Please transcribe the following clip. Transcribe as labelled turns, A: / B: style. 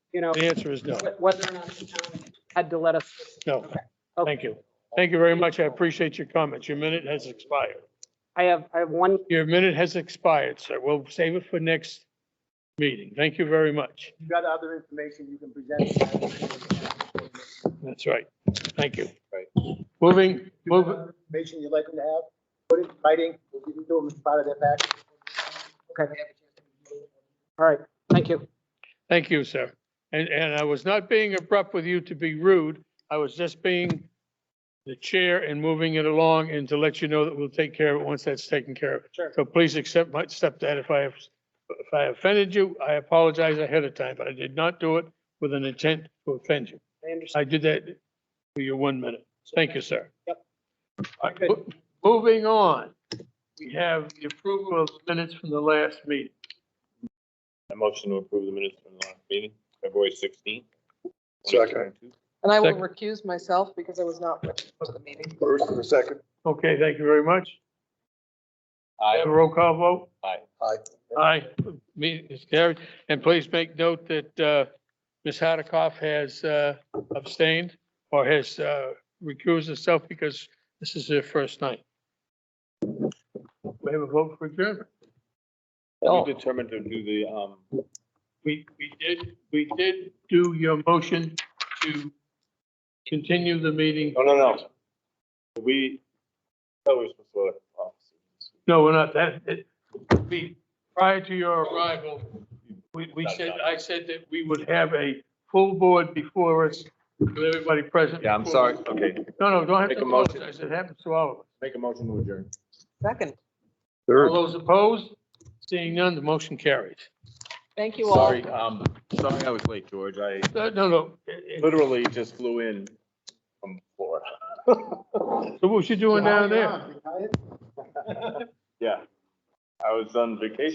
A: you know,
B: The answer is no,
A: wh- whether or not the town had to let us.
B: no. Thank you. Thank you very much. I appreciate your comments. Your minute has expired.
A: I have, I have one,
B: Your minute has expired, sir. We'll save it for next meeting. Thank you very much.
C: You got other information you can present?
B: That's right. Thank you. Moving, moving.
C: Information you'd like them to have, put it in writing, we'll give it to them as part of their package.
A: okay. All right, thank you.
B: Thank you, sir. And, and I was not being abrupt with you to be rude. I was just being the chair and moving it along and to let you know that we'll take care of it once that's taken care of.
A: Sure.
B: So please accept my, accept that if I have, if I offended you, I apologize ahead of time, but I did not do it with an intent to offend you.
A: I understand.
B: I did that for your one minute. Thank you, sir.
A: Yep.
B: All right, mo- Moving on, we have the approval of minutes from the last meeting.
D: I motion to approve the minutes from the last meeting, February sixteenth.
E: Second.
F: And I will
B: Second.
F: recuse myself because I was not with for the meeting.
E: First and the second.
B: Okay, thank you very much.
D: Aye.
B: Have a roll call vote?
D: Aye.
E: Aye.
B: Aye. Me, it's carried. And please make note that uh, Ms. Hardikoff has uh, abstained or has uh, recused herself because this is her first night. We have a vote for adjournment. Oh.
D: We determined to do the, um,
B: We, we did, we did do your motion to continue the meeting.
D: no, no, no. We, oh, we're supposed to vote. Oh,
B: No, we're not, that, it, we, prior to your arrival, we, we said, I said that we would have a full board before us, with everybody present.
D: Yeah, I'm sorry. Okay,
B: No, no, don't have
D: Make
B: to
D: a motion.
B: apologize, it happens to all of us.
D: make a motion to adjourn.
F: Second,
B: All those opposed, seeing none, the motion carries.
F: thank you all.
D: Sorry, um, sorry I was late, George. I
B: No, no, no, it- it-
D: literally just flew in from Florida.
B: so what you doing down there?
D: Yeah. I was on vacation.